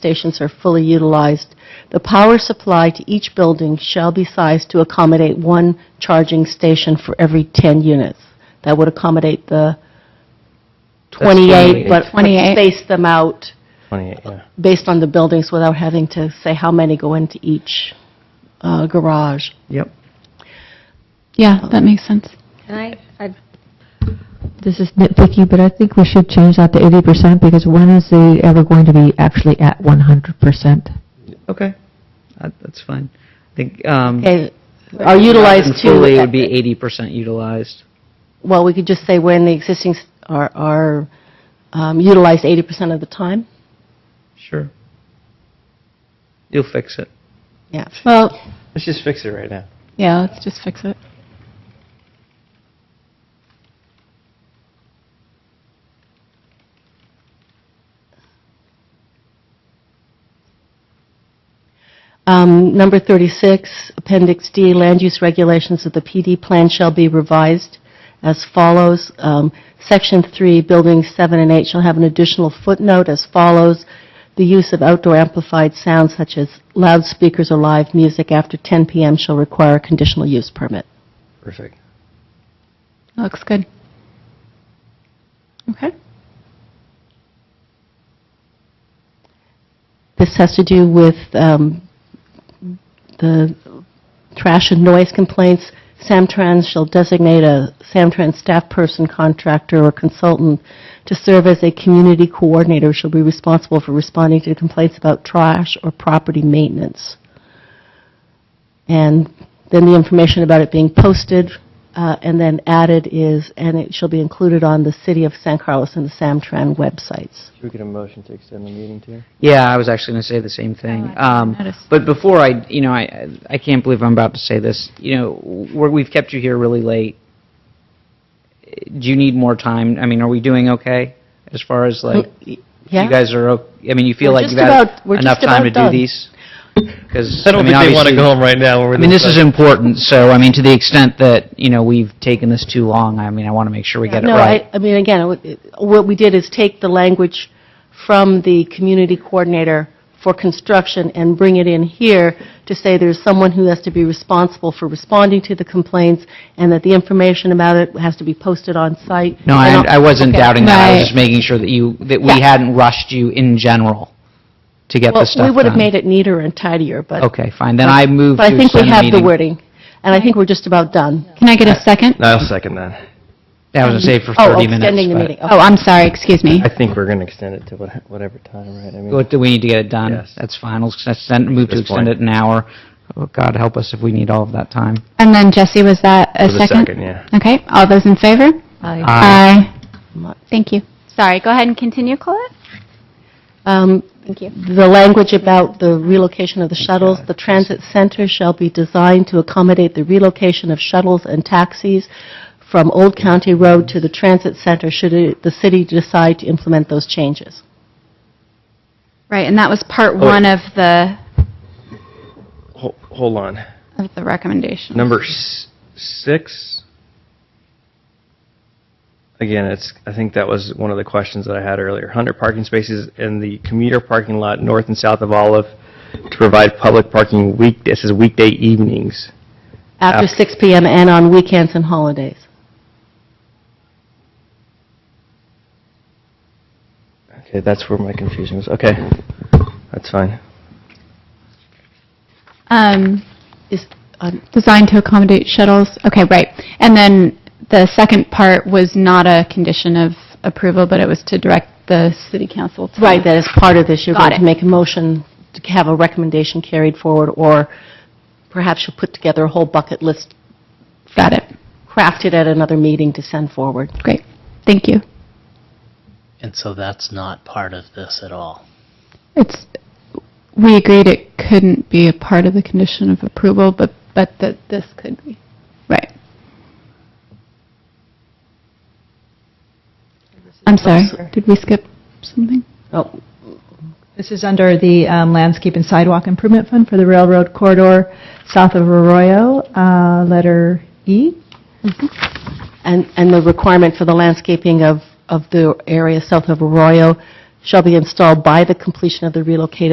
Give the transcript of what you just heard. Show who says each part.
Speaker 1: stations are fully utilized. The power supply to each building shall be sized to accommodate one charging station for every 10 units. That would accommodate the 28,
Speaker 2: 28.
Speaker 1: but but
Speaker 3: 28.
Speaker 1: space them out
Speaker 2: 28, yeah.
Speaker 1: based on the buildings without having to say how many go into each uh, garage.
Speaker 2: Yep.
Speaker 3: Yeah, that makes sense.
Speaker 4: And I, I,
Speaker 5: This is nitpicky, but I think we should change that to eighty percent, because when is the ever going to be actually at one hundred percent?
Speaker 6: Okay, That- that's fine. I think, um,
Speaker 1: Okay, are utilized to...
Speaker 6: fully would be 80% utilized.
Speaker 1: Well, we could just say when the existing s- are- are um, utilized 80% of the time?
Speaker 6: Sure. You'll fix it.
Speaker 1: Yeah.
Speaker 3: Well,
Speaker 2: Let's just fix it right now.
Speaker 3: yeah, let's just fix it.
Speaker 1: Um, Number 36, Appendix D, land use regulations of the PD plan shall be revised as follows. Um, Section 3, Buildings 7 and 8 shall have an additional footnote as follows. The use of outdoor amplified sounds such as loudspeakers or live music after 10 PM shall require a conditional use permit.
Speaker 2: Perfect.
Speaker 3: Looks good. Okay.
Speaker 1: This has to do with um, the trash and noise complaints. Samtrans shall designate a Samtrans staff person, contractor, or consultant to serve as a community coordinator, shall be responsible for responding to complaints about trash or property maintenance. And then the information about it being posted uh, and then added is, and it shall be included on the City of San Carlos and the Samtran websites.
Speaker 2: Should we get a motion to extend the meeting to?
Speaker 6: Yeah, I was actually going to say the same
Speaker 1: Oh,
Speaker 6: thing. Um,
Speaker 3: noticed.
Speaker 6: But before I, you know, I, I can't believe I'm about to say this. You know, we're, we've kept you here really late. Do you need more time? I mean, are we doing okay as far as like,
Speaker 1: Yeah?
Speaker 6: you guys are, o- I mean, you feel
Speaker 1: We're
Speaker 6: like
Speaker 1: just
Speaker 6: you've had
Speaker 1: about- we're
Speaker 6: enough
Speaker 1: just
Speaker 6: time
Speaker 1: about
Speaker 6: to do
Speaker 1: done.
Speaker 6: these? Because,
Speaker 2: I don't think they want to go home right now.
Speaker 6: I mean, this is important, so, I mean, to the extent that, you know, we've taken this too long, I mean, I want to make sure we get it
Speaker 1: No,
Speaker 6: right.
Speaker 1: I, I mean, again, it would- it- what we did is take the language from the community coordinator for construction and bring it in here to say there's someone who has to be responsible for responding to the complaints, and that the information about it has to be posted on site.
Speaker 6: No, I
Speaker 1: And
Speaker 6: I wasn't
Speaker 1: okay.
Speaker 6: doubting that, I
Speaker 3: Right.
Speaker 6: was just making sure that you, that we
Speaker 1: Yeah.
Speaker 6: hadn't rushed you in general to get
Speaker 1: Well,
Speaker 6: this stuff
Speaker 1: we
Speaker 6: done.
Speaker 1: would have made it neater and tidier, but...
Speaker 6: Okay, fine, then I move to
Speaker 1: But I think we
Speaker 6: extend the
Speaker 1: have the
Speaker 6: meeting.
Speaker 1: wording, and I think we're just about done.
Speaker 3: Can I get
Speaker 2: Uh,
Speaker 3: a second?
Speaker 2: I'll second that.
Speaker 6: I was going to say for
Speaker 1: Oh,
Speaker 6: 30 minutes.
Speaker 1: extending the
Speaker 6: but-
Speaker 1: meeting. Okay.
Speaker 3: Oh, I'm sorry, excuse me.
Speaker 2: I think we're going to extend it to what- whatever time, right? I mean,
Speaker 6: What, do we need to get it done?
Speaker 2: Yes.
Speaker 6: That's fine, I'll extend, move to
Speaker 2: This
Speaker 6: extend it
Speaker 2: point.
Speaker 6: an hour. Oh, God help us if we need all of that time.
Speaker 3: And then Jesse, was that a
Speaker 2: for the
Speaker 3: second?
Speaker 2: second, yeah.
Speaker 3: Okay, all those in favor?
Speaker 1: Uh,
Speaker 6: Aye.
Speaker 3: Aye. Thank you. Sorry, go ahead and continue, Colette.
Speaker 1: Um,
Speaker 3: Thank you.
Speaker 1: the language about the relocation of the shuttles, the transit center shall be designed to accommodate the relocation of shuttles and taxis from Old County Road to the transit center should it- the city decide to implement those changes.
Speaker 3: Right, and that was part
Speaker 2: Oh, wait.
Speaker 3: one of the,
Speaker 2: Ho- Hold on.
Speaker 3: of the recommendation.
Speaker 2: Number s- six. Again, it's, I think that was one of the questions that I had earlier. 100 parking spaces in the commuter parking lot north and south of Olive to provide public parking week, this is weekday evenings.
Speaker 1: After
Speaker 2: After-
Speaker 1: 6 PM and on weekends and holidays.
Speaker 2: Okay, that's where my confusion was. Okay, that's fine.
Speaker 3: Um,
Speaker 1: Is, um,
Speaker 3: designed to accommodate shuttles, okay, right. And then the second part was not a condition of approval, but it was to direct the city council to.
Speaker 1: right, that is part of this, you're
Speaker 3: Got
Speaker 1: going to
Speaker 3: it.
Speaker 1: make a motion to have a recommendation carried forward, or perhaps you'll put together a whole bucket list
Speaker 3: Got it,
Speaker 1: crafted at another meeting to send forward.
Speaker 3: great, thank you.
Speaker 7: And so that's not part of this at all.
Speaker 3: It's, we agreed it couldn't be a part of the condition of approval, but, but that this could be. Right. I'm sorry, did we skip something?
Speaker 1: Oh,
Speaker 5: This is under the um, Landscape and Sidewalk Improvement Fund for the railroad corridor south of Arroyo, uh, letter E.
Speaker 1: And, and the requirement for the landscaping of, of the area south of Arroyo shall be installed by the completion of the relocated